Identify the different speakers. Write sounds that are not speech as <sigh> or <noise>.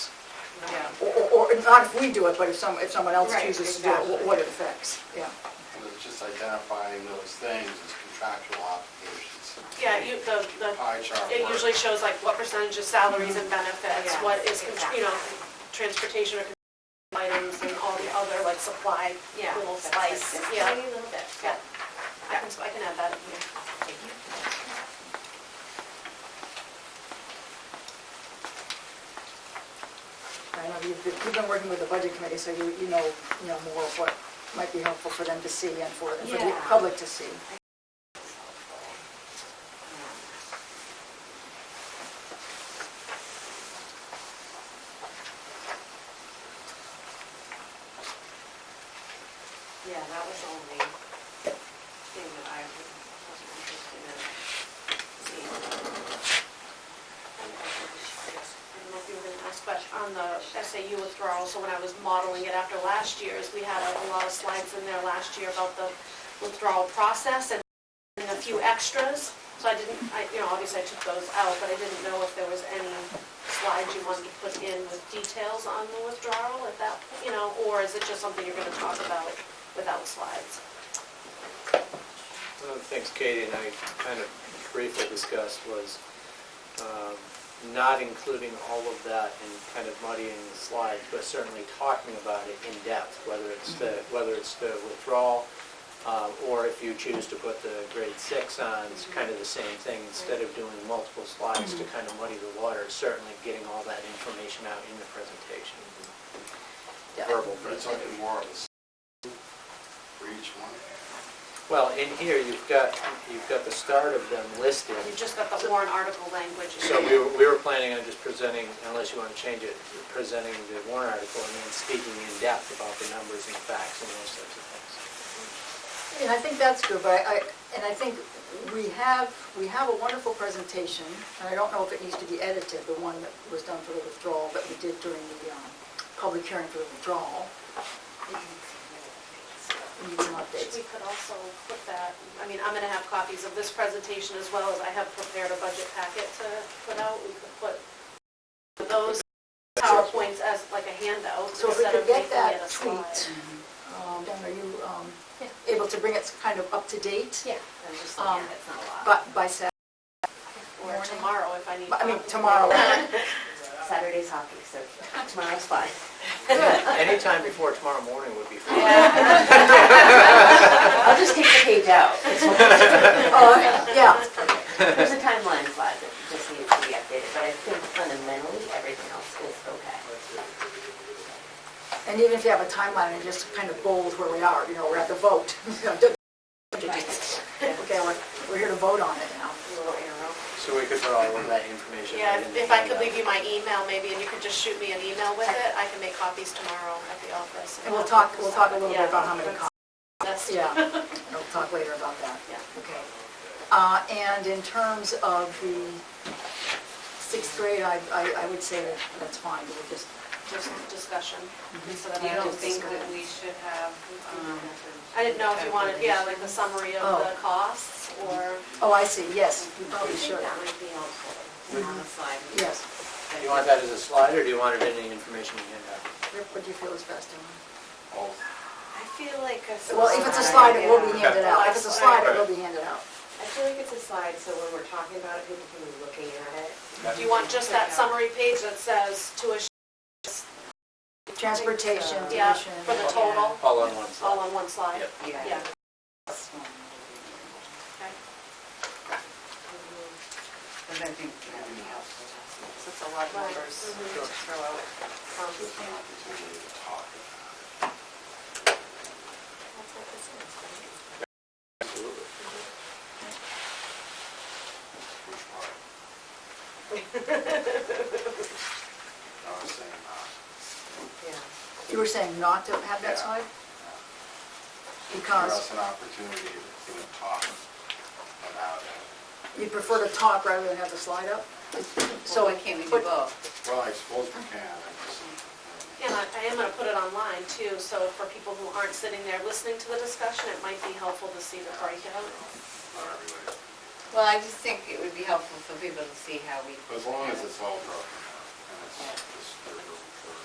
Speaker 1: not if we do it, but if some, if someone else
Speaker 2: Right,
Speaker 1: chooses to do it, what-
Speaker 2: exactly.
Speaker 1: what it affects, yeah.
Speaker 3: It's just identifying those things as contractual obligations.
Speaker 4: Yeah, you, the, the,
Speaker 3: Pie chart
Speaker 4: it
Speaker 3: work.
Speaker 4: usually shows like what percentage of salaries and benefits,
Speaker 2: Yeah,
Speaker 4: what is,
Speaker 2: exactly.
Speaker 4: you know, transportation or items and all the other like supply,
Speaker 2: Yeah.
Speaker 4: little
Speaker 2: that's like
Speaker 4: slice,
Speaker 2: this,
Speaker 4: yeah.
Speaker 2: Maybe a little bit,
Speaker 4: Yeah.
Speaker 2: yeah.
Speaker 4: I can, I can add that in here.
Speaker 1: I know you've been, you've been working with the budget committee, so you, you know, you know more of what might be helpful for them to see and for, and for the
Speaker 2: Yeah.
Speaker 1: public to see.
Speaker 2: Yeah, that was the only thing that I was interested in seeing.
Speaker 4: I don't know if you were gonna ask, but on the SAU withdrawal, so when I was modeling it after last year's, we had a lot of slides in there last year about the withdrawal process and and a few extras. So I didn't, I, you know, obviously I took those out, but I didn't know if there was any slides you wanted to put in with details on the withdrawal at that, you know, or is it just something you're gonna talk about without slides?
Speaker 5: One of the things Katie and I kind of briefly discussed was um, not including all of that and kind of muddying the slides, but certainly talking about it in depth, whether it's the, whether it's the withdrawal, um, or if you choose to put the grade six on, it's kind of the same thing, instead of doing multiple slides to kind of muddy the water, certainly getting all that information out in the presentation.
Speaker 1: Yeah.
Speaker 5: Verbal
Speaker 3: But it's
Speaker 5: presentation.
Speaker 3: looking more of a s- for each one.
Speaker 5: Well, in here, you've got, you've got the start of them listed,
Speaker 4: You just got the warrant article language. in
Speaker 5: So
Speaker 4: there.
Speaker 5: we were, we were planning on just presenting, unless you want to change it, presenting the warrant article and then speaking in depth about the numbers and facts and those types
Speaker 4: <laughs>
Speaker 5: of things.
Speaker 1: And I think that's good, but I, I- and I think we have, we have a wonderful presentation, and I don't know if it needs to be edited, the one that was done for the withdrawal, that we did during the um, public hearing for the withdrawal.
Speaker 2: Mm-hmm.
Speaker 1: It Needs some updates.
Speaker 4: We could also put that, I mean, I'm gonna have copies of this presentation as well as I have prepared a budget packet to put out. We could put those PowerPoints as like a handout
Speaker 1: So if we
Speaker 4: instead
Speaker 1: could
Speaker 4: of
Speaker 1: get
Speaker 4: making it
Speaker 1: that
Speaker 4: a
Speaker 1: tweet,
Speaker 4: slide.
Speaker 1: um, then are you um,
Speaker 4: Yeah.
Speaker 1: able to bring it kind of up to date?
Speaker 4: Yeah,
Speaker 2: I'm just
Speaker 1: Um,
Speaker 2: looking at it, it's not a lot.
Speaker 1: By, by Saturday,
Speaker 4: or tomorrow if I need.
Speaker 1: I mean
Speaker 4: copies.
Speaker 1: tomorrow. <laughs>
Speaker 2: Saturday's hockey, so <laughs> tomorrow's fine.
Speaker 5: Anytime before tomorrow morning would be fine.
Speaker 2: I'll just take the page out.
Speaker 1: Oh, yeah,
Speaker 2: There's a timeline slide that just needs to be updated, but I think fundamentally, everything else is okay.
Speaker 1: and even if you have a timeline and just kind of bold where we are, you know, we're at the vote. <laughs> Okay, we're, we're here to vote on it now.
Speaker 2: Little arrow.
Speaker 5: <laughs> So we could put all of that information.
Speaker 4: Yeah,
Speaker 5: right in the
Speaker 4: if I could leave you
Speaker 5: handout.
Speaker 4: my email maybe and you could just shoot me an email with it, I can make copies tomorrow at the office.
Speaker 1: And we'll talk, we'll talk a little bit about how many
Speaker 4: Yeah,
Speaker 1: copies,
Speaker 4: That's,
Speaker 1: <laughs> yeah, and we'll talk later about that.
Speaker 4: Yeah.
Speaker 1: Okay. Uh, And in terms of the sixth grade, I, I I would say that that's fine, we'll just,
Speaker 4: just discussion
Speaker 1: Mm-hmm.
Speaker 4: instead of.
Speaker 6: You don't
Speaker 4: just-
Speaker 6: think that we should have, um...
Speaker 4: I didn't know if you wanted, yeah, like the summary of the costs or.
Speaker 1: oh, I see, yes, you
Speaker 2: I
Speaker 1: probably should,
Speaker 2: think that might be helpful.
Speaker 6: On the slide.
Speaker 1: yes.
Speaker 5: Do you want that as a slide or do you want it in the information handout?
Speaker 1: Rick, what do you feel is best, Ellen?
Speaker 3: Both.
Speaker 6: I feel like a slide...
Speaker 1: Well, if it's a slide, it will be
Speaker 6: yeah.
Speaker 1: handed out. If it's a slide, it will be handed out.
Speaker 6: I feel like it's a slide, so when we're talking about it, people can be looking at it.
Speaker 4: Do you want just that summary page that says tuition,
Speaker 1: Transportation,
Speaker 4: yeah,
Speaker 1: tuition.
Speaker 4: for the total,
Speaker 5: All on one
Speaker 4: all
Speaker 5: slide?
Speaker 4: on one slide?
Speaker 5: Yep.
Speaker 4: Yeah.
Speaker 6: Because I think that would be helpful.
Speaker 7: It's a lot of numbers to
Speaker 4: Mhm.
Speaker 7: throw out.
Speaker 3: Just an opportunity to talk about it.
Speaker 5: Absolutely.
Speaker 3: Which part? I was saying, uh,
Speaker 1: You were saying not to have that
Speaker 3: Yeah.
Speaker 1: slide?
Speaker 3: give us
Speaker 1: Because
Speaker 3: an opportunity to talk about it.
Speaker 1: you prefer to talk rather than have the slide up? So
Speaker 7: Why can't we do both?
Speaker 3: Well, I suppose we can, I just...
Speaker 4: And I I am going to put it online too, so for people who aren't sitting there listening to the discussion, it might be helpful to see the breakout.
Speaker 3: Not everybody.
Speaker 7: Well, I just think it would be helpful for people to see how we.
Speaker 3: But as long as it's all broken up and it's just, there's